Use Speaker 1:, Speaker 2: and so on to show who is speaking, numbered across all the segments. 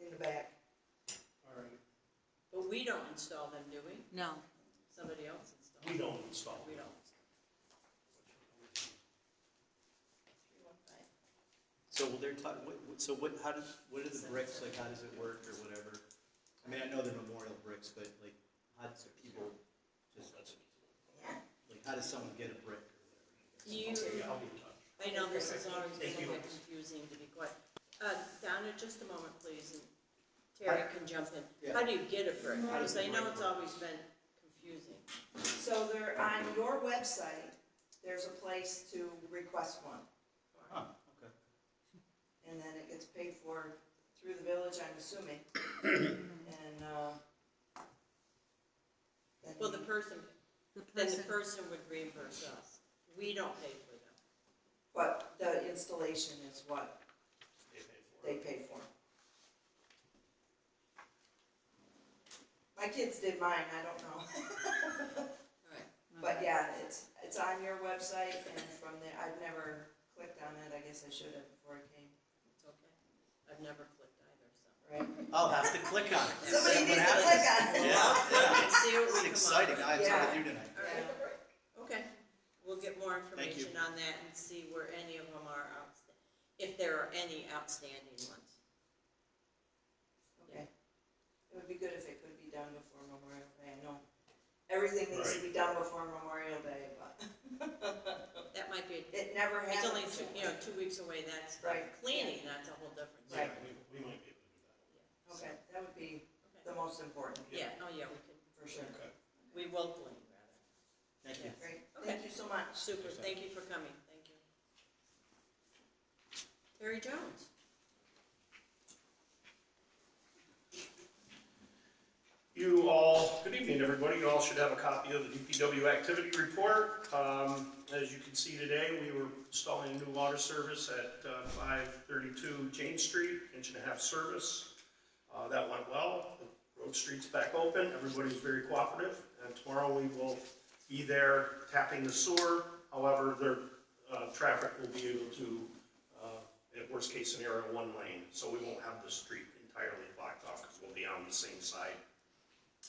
Speaker 1: in the back.
Speaker 2: All right,
Speaker 3: But we don't install them, do we?
Speaker 4: No,
Speaker 3: Somebody else installs.
Speaker 2: we don't install.
Speaker 3: We don't.
Speaker 5: So will they're taught, what, what- so what, how does, what are the bricks, like, how does it work or whatever? I mean, I know they're memorial bricks, but like, how does people just, like, how does someone get a brick?
Speaker 3: You,
Speaker 2: Okay, I'll be in touch.
Speaker 3: I know this is always a
Speaker 2: Thank you.
Speaker 3: little bit confusing to be quite, uh, Donna, just a moment, please, and Terry can jump in.
Speaker 5: Yeah.
Speaker 3: How do you get a brick?
Speaker 5: How does
Speaker 3: Because I
Speaker 5: the
Speaker 3: know
Speaker 5: brick
Speaker 3: it's
Speaker 5: work?
Speaker 3: always been confusing.
Speaker 1: So there, on your website, there's a place to request one,
Speaker 5: Huh, okay.
Speaker 1: and then it gets paid for through the village, I'm assuming. And, uh, then-
Speaker 3: Well, the person,
Speaker 4: the
Speaker 3: then the
Speaker 4: person,
Speaker 3: person would reimburse us. We don't pay for them.
Speaker 1: But the installation is what
Speaker 2: They pay for
Speaker 1: they
Speaker 2: it.
Speaker 1: pay for. My kids did mine, I don't know.
Speaker 3: Right.
Speaker 1: But yeah, it's, it's on your website and from there, I've never clicked on it, I guess I should have before I came,
Speaker 3: It's okay. I've never clicked either, so.
Speaker 1: right?
Speaker 5: I'll have to click on it. See
Speaker 1: Somebody needs
Speaker 5: what
Speaker 1: to
Speaker 5: happens.
Speaker 1: click on it.
Speaker 5: Yeah, yeah.
Speaker 3: Let's see what we come up
Speaker 5: It's
Speaker 3: with.
Speaker 5: exciting, I have something to do tonight.
Speaker 3: All right. Okay, we'll get more
Speaker 5: Thank you.
Speaker 3: information on that and see where any of them are outstanding, if there are any outstanding ones.
Speaker 1: Okay. It would be good if it could be done before Memorial Day, I know everything needs to be done before Memorial Day, but
Speaker 3: That might be,
Speaker 1: it never
Speaker 3: it's only,
Speaker 1: happens.
Speaker 3: two you know, two weeks away, that's
Speaker 1: Right.
Speaker 3: cleaning, that's a whole different
Speaker 1: Right.
Speaker 3: story.
Speaker 2: Yeah, we- We might be able to do that.
Speaker 1: Okay, that would be
Speaker 3: Okay.
Speaker 1: the most important,
Speaker 3: Yeah, oh yeah, we can,
Speaker 1: for sure.
Speaker 2: Okay.
Speaker 3: we will clean, rather.
Speaker 5: Thank you.
Speaker 1: Great,
Speaker 3: Okay.
Speaker 1: thank you so much.
Speaker 3: Super, thank you for coming, thank you. Terry Jones,
Speaker 2: You all, good evening, everybody. You all should have a copy of the DPW activity report. Um, As you can see today, we were installing a new water service at uh, 532 Jane Street, inch and a half service. Uh, That went well. The Road street's back open. Everybody's very cooperative. And tomorrow, we will be there tapping the sewer. However, their uh, traffic will be able to, uh, at worst case scenario, one lane. So we won't have the street entirely blocked off because we'll be on the same side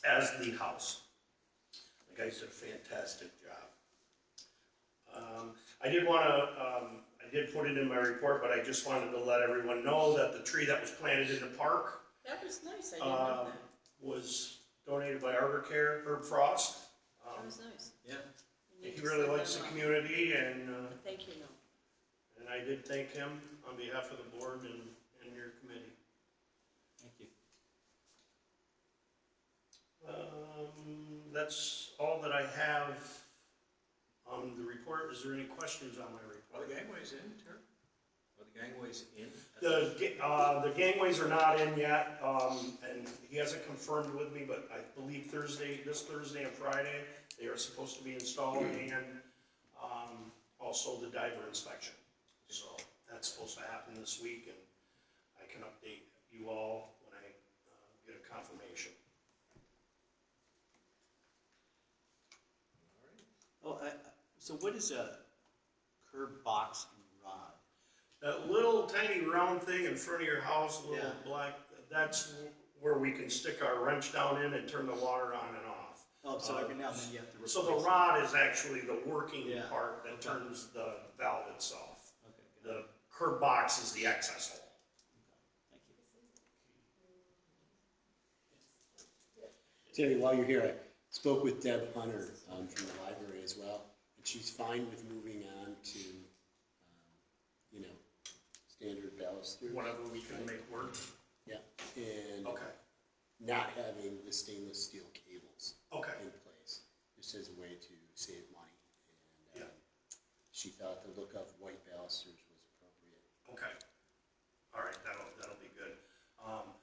Speaker 2: as the house. The guys did a fantastic job. Um, I did want to, um, I did put it in my report, but I just wanted to let everyone know that the tree that was planted in the park
Speaker 3: that was nice, I didn't know
Speaker 2: Um,
Speaker 3: that,
Speaker 2: was donated by Arbor Care, Herb Frost. Um,
Speaker 3: that was nice.
Speaker 5: Yeah.
Speaker 3: You need
Speaker 2: He
Speaker 3: to
Speaker 2: really
Speaker 3: send
Speaker 2: likes the
Speaker 3: them up.
Speaker 2: community and, uh,
Speaker 3: Thank you, no.
Speaker 2: and I did thank him on behalf of the board and, and your committee.
Speaker 5: Thank you.
Speaker 2: Um, that's all that I have on the report. Is there any questions on my report?
Speaker 6: Are the gangways in, Terry? Are the gangways in?
Speaker 2: The, ga- uh, the gangways are not in yet, um, and he hasn't confirmed with me, but I believe Thursday, this Thursday and Friday, they are supposed to be installed and, um, also the diver inspection. So that's supposed to happen this week and I can update you all when I, uh, get a confirmation.
Speaker 5: Oh, I, I- so what is a curb box and rod?
Speaker 2: That little tiny round thing in front of your house, little
Speaker 5: Yeah.
Speaker 2: black, that's where we can stick our wrench down in and turn the water on and off.
Speaker 5: Oh, so
Speaker 2: Uh,
Speaker 5: every now and then you have to replace.
Speaker 2: So
Speaker 5: it.
Speaker 2: the rod is actually the working
Speaker 5: Yeah.
Speaker 2: part that
Speaker 5: Okay.
Speaker 2: turns the valve itself.
Speaker 5: Okay, good.
Speaker 2: The curb box is the access hole.
Speaker 5: Thank you.
Speaker 7: Terry, while you're here, I spoke with Deb Hunter um, from the library as well, and she's fine with moving on to, um, you know, standard baluster.
Speaker 2: Whatever we can make work.
Speaker 7: Yeah, and
Speaker 2: Okay,
Speaker 7: not having the stainless steel cables
Speaker 2: okay,
Speaker 7: in place, just as a way to save money. And um,
Speaker 2: Yeah.
Speaker 7: she thought the look of white balusters was appropriate.
Speaker 2: okay. All right, that'll, that'll be good. Um,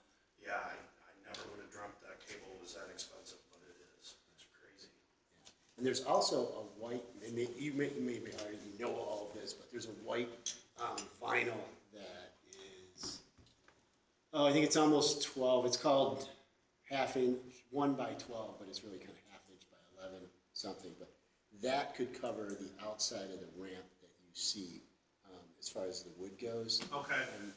Speaker 2: yeah, I, I never would have dreamt that cable was that expensive, but it is. It's crazy.
Speaker 7: And there's also a white, and may- you may, you may be already know all of this, but there's a white um, vinyl that is, oh, I think it's almost 12. It's called half inch, one by 12, but it's really kind of half inch by 11 something. But that could cover the outside of the ramp that you see um, as far as the wood goes.
Speaker 2: Okay,
Speaker 7: And